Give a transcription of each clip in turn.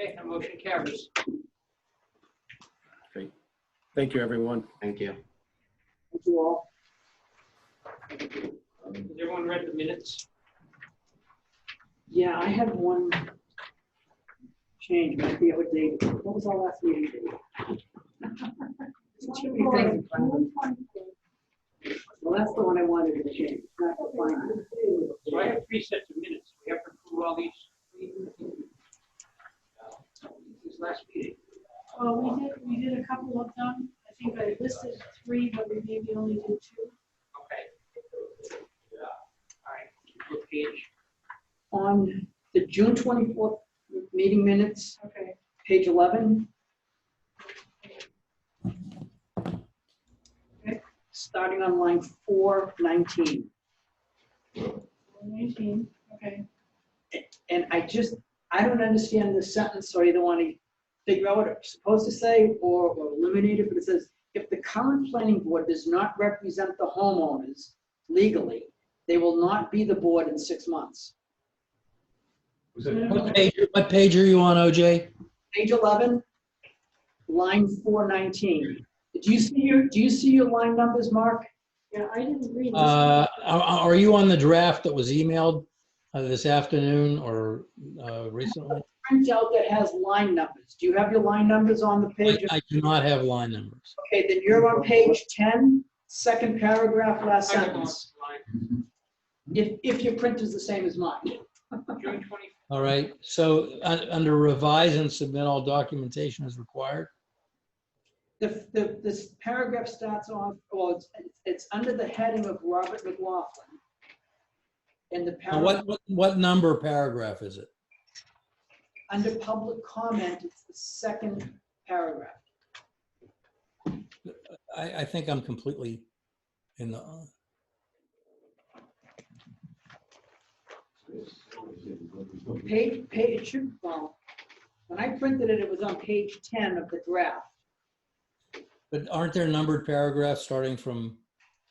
Okay, the motion carries. Thank you, everyone. Thank you. Thank you all. Has everyone read the minutes? Yeah, I had one change, might be outdated. What was our last meeting date? There's Too many things in front of me. Well, that's the one I wanted to change. not the final. So I have three sets of minutes. We have to approve all these. This last meeting. Well, Uh, we did, we did a couple of them. I think I listed three, but we maybe only did two. Okay. All right, what page? On the June 24th meeting minutes, Okay. page 11, starting on line 419. Nineteen, okay. And I just, I don't understand the sentence, or either want to figure out what it's supposed to say or or eliminate it, but it says, if the current planning board does not represent the homeowners legally, they will not be the board in six months. Was I it, don't know. What page, what page are you on, OJ? Page 11, line 419. Do you see your, do you see your line numbers, Mark? Yeah, I didn't read this. Uh, are, are you on the draft that was emailed uh, this afternoon or uh, recently? Printout that has line numbers. Do you have your line numbers on the I page? I do not have line numbers. Okay, then you're on page 10, second paragraph, last Second one, sentence. If, if your print is the same as mine. line, June twenty, All right, so uh, under revise and submit all documentation as required. The, the, this paragraph starts off, well, it's, it's under the heading of Robert McLaughlin. And the Now, paragraph, what, what, what number paragraph is it? under public comment, it's the second paragraph. I, I think I'm completely in the, Page, page, it should, well, when I printed it, it was on page ten of the draft. but aren't there numbered paragraphs starting from,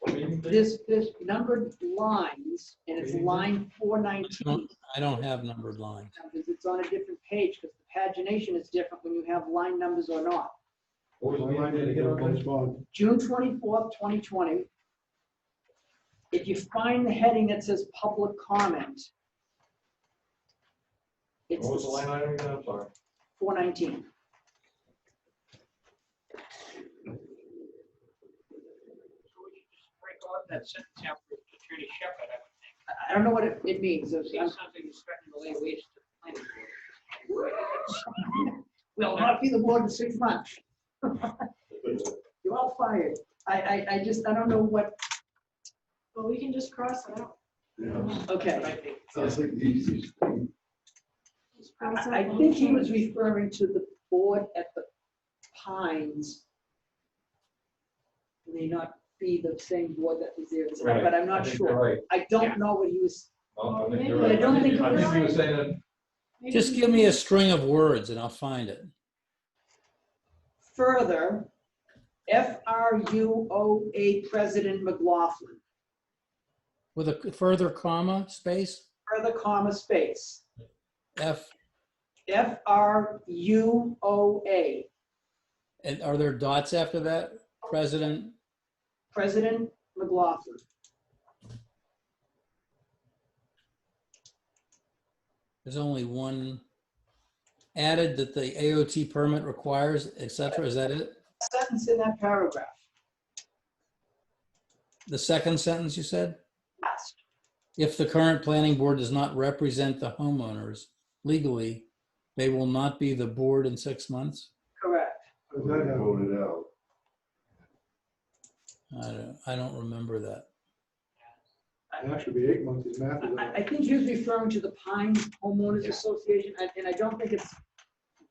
This, this numbered lines, and it's line four nineteen. I don't have numbered lines. It's on a different page, because the pagination is different when you have line numbers or not. what was the line that it hit on? Correspond. June twenty-fourth, twenty twenty. If you find the heading that says public comment. It's What was the line item again? I'm sorry. four nineteen. so we should just break off that sentence after Attorney Shepard. I would think. I don't know what it, it means. It's- See I'm- something that's threatening to lay waste to the planning board. We'll not be the board in six months. You're all fired. I, I, I just, I don't know what, Well, we can just cross it out. But okay. I think Sounds like the easiest thing. Just cross out I I one think he was change. referring to the board at the Pines. May not be the same board that was there, tonight, but I'm I not think you're sure. Right. I Yeah. don't know what he was No, Oh, I think you're But I right. don't think- I think he was saying that, Maybe- Just give me a string of words and I'll find it. Further, FRUOA President McLaughlin, With a further comma, space, further comma space, F, FRUOA, and are there dots after that? President, President McLaughlin. there's only one added that the AOT permit requires, et cetera, is that it? Sentence in that paragraph, The second sentence you said? last, If the current planning board does not represent the homeowners legally, they will not be the board in six months? correct. voted out. I don't, I don't remember that. That should be eight months in math. I, I think he was referring to the Pines Homeowners Association, and and I don't think it's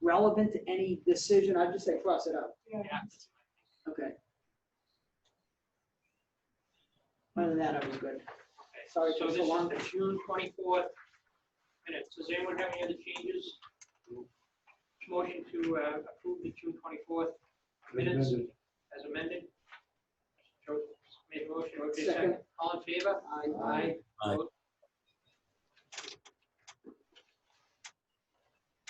relevant to any decision. I'd just say cross it out. Yeah. Okay. Other than that, I was good. Okay, Sorry, So took so this is long. the June twenty-fourth minutes. Does anyone have any other changes? Motion to uh, approve the June twenty-fourth minutes as amended. Joe made a motion, okay, second. Second. All in favor? I- Aye. Aye. Opposed?